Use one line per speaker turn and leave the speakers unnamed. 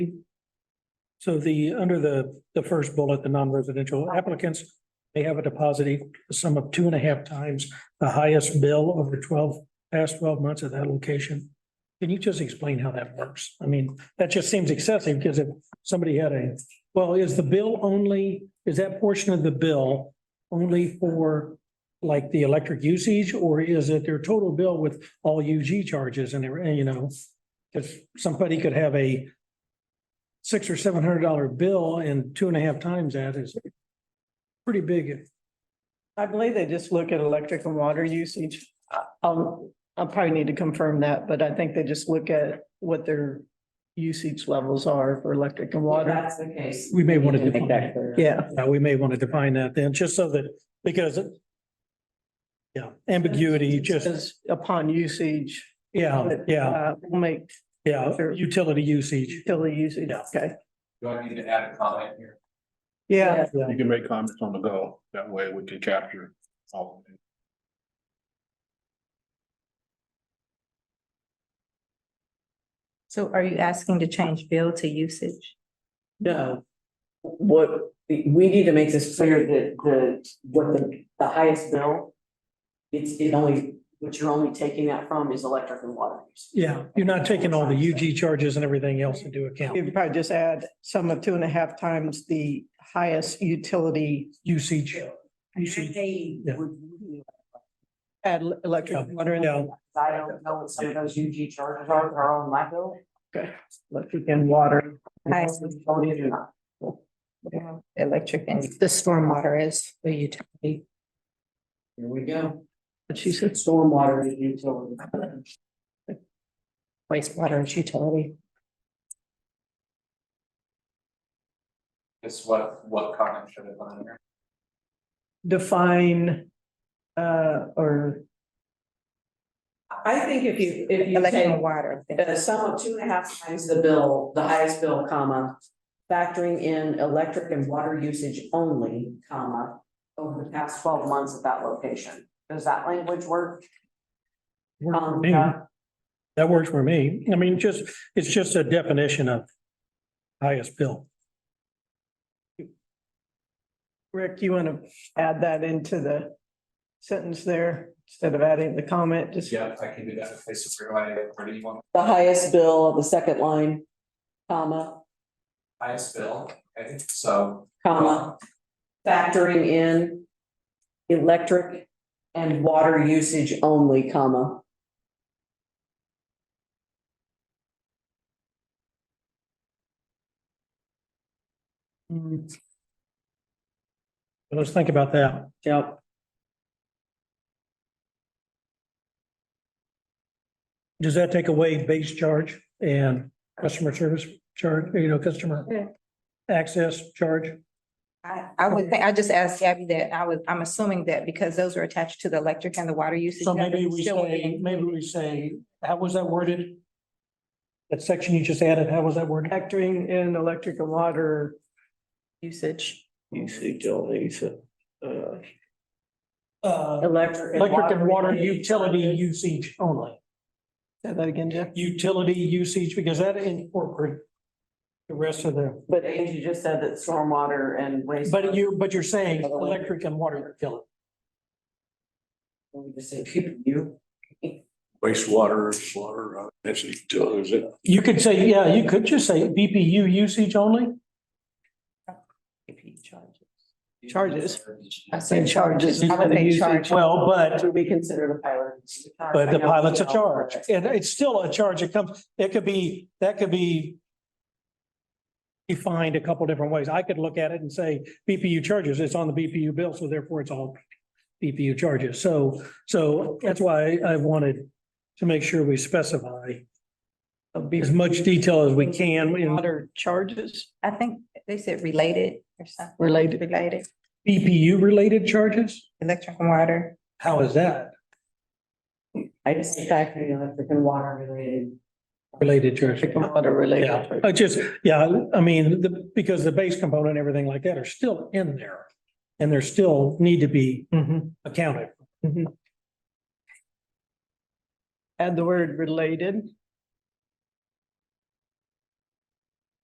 So the, under the, the first bullet, the non-residential applicants may have a deposit equal to the sum of two and a half times the highest bill over twelve, past twelve months at that location. Can you just explain how that works? I mean, that just seems excessive because if somebody had a, well, is the bill only, is that portion of the bill only for like the electric usage or is it their total bill with all UG charges and, every- and, you know? If somebody could have a six or seven hundred dollar bill and two and a half times that is pretty big.
I believe they just look at electric and water usage. I- I'll, I'll probably need to confirm that, but I think they just look at what their usage levels are for electric and
Well,
water.
that's the case.
We may wanna
need make
define
that
it.
clear.
Yeah,
Uh, we may want to define that then, just so that, because it- yeah, ambiguity, just,
Says upon usage.
yeah,
but,
yeah,
uh, We'll make
yeah, utility usage.
utility usage, okay.
Do I need to add a comment here?
Yeah,
You can make comments on the go. That way we can capture all of it.
So are you asking to change bill to usage?
No. What, we we need to make this clear that the, what the, the highest bill. It's, it only, what you're only taking that from is electric and water. use.
Yeah, you're not taking all the UG charges and everything else into account,
you could probably just add some of two and a half times the highest utility,
usage.
And
Usage.
They
Yeah.
would.
add electric and water in,
Yeah,
I don't know what some of those UG charges are, are on my bill.
electric and water.
I-
Utility or not.
Electric and the stormwater is the utility.
Here we go.
But she said,
Stormwater is utility.
Wastewater is utility.
Just what, what comment should have been here?
define, uh, or
I think if you, if you
Electric
take
and water.
a sum of two and a half times the bill, the highest bill, comma, factoring in electric and water usage only, comma, over the past twelve months at that location. Does that language work?
works for
Um,
me. That works for me. I mean, just, it's just a definition of highest bill.
Rick, you want to add that into the sentence there instead of adding the comment, just.
Yeah, I can do that if they supervise, or do you want
The highest bill, the second line, comma,
highest bill? Okay, so
comma, factoring in electric and water usage only, comma.
Let's think about that.
Yep.
Does that take away base charge and customer service charge, you know,
Yeah.
customer access charge?
I, I would think, I just asked Gabby that, I would, I'm assuming that because those are attached to the electric and the water usage.
So maybe we
still
say,
in.
maybe we say, how was that worded? That section you just added, how was that worded?
Factoring in electric and water
Usage.
usage only, so, uh,
Uh,
Electric.
electric and water utility usage only,
say that again, Jeff.
utility usage, because that incorporates the rest of the,
But Angie just said that stormwater and waste.
but you, but you're saying electric and water utility.
Let me just say, people, you.
Wastewater, water, that's utilities.
You could say, yeah, you could just say BPU usage only.
Charges.
I said
charges.
charges. I would say charge.
Well, but
But we consider the pilot.
But the pilot's a charge, and it's still a charge, it comes, it could be, that could be. Defined a couple different ways, I could look at it and say BPU charges, it's on the BPU bill, so therefore it's all. BPU charges, so, so that's why I wanted to make sure we specify as much detail as we can in
Water charges
I think they said related or something,
related,
related,
BPU related charges,
electric and water.
how is that
I just think factory electric and water related.
related charge?
electric and water related.
Yeah,
charges.
I Uh, just, yeah, I mean, the, because the base component and everything like that are still in there. And they're still need to be
Mhm.
accounted.
Add the word related.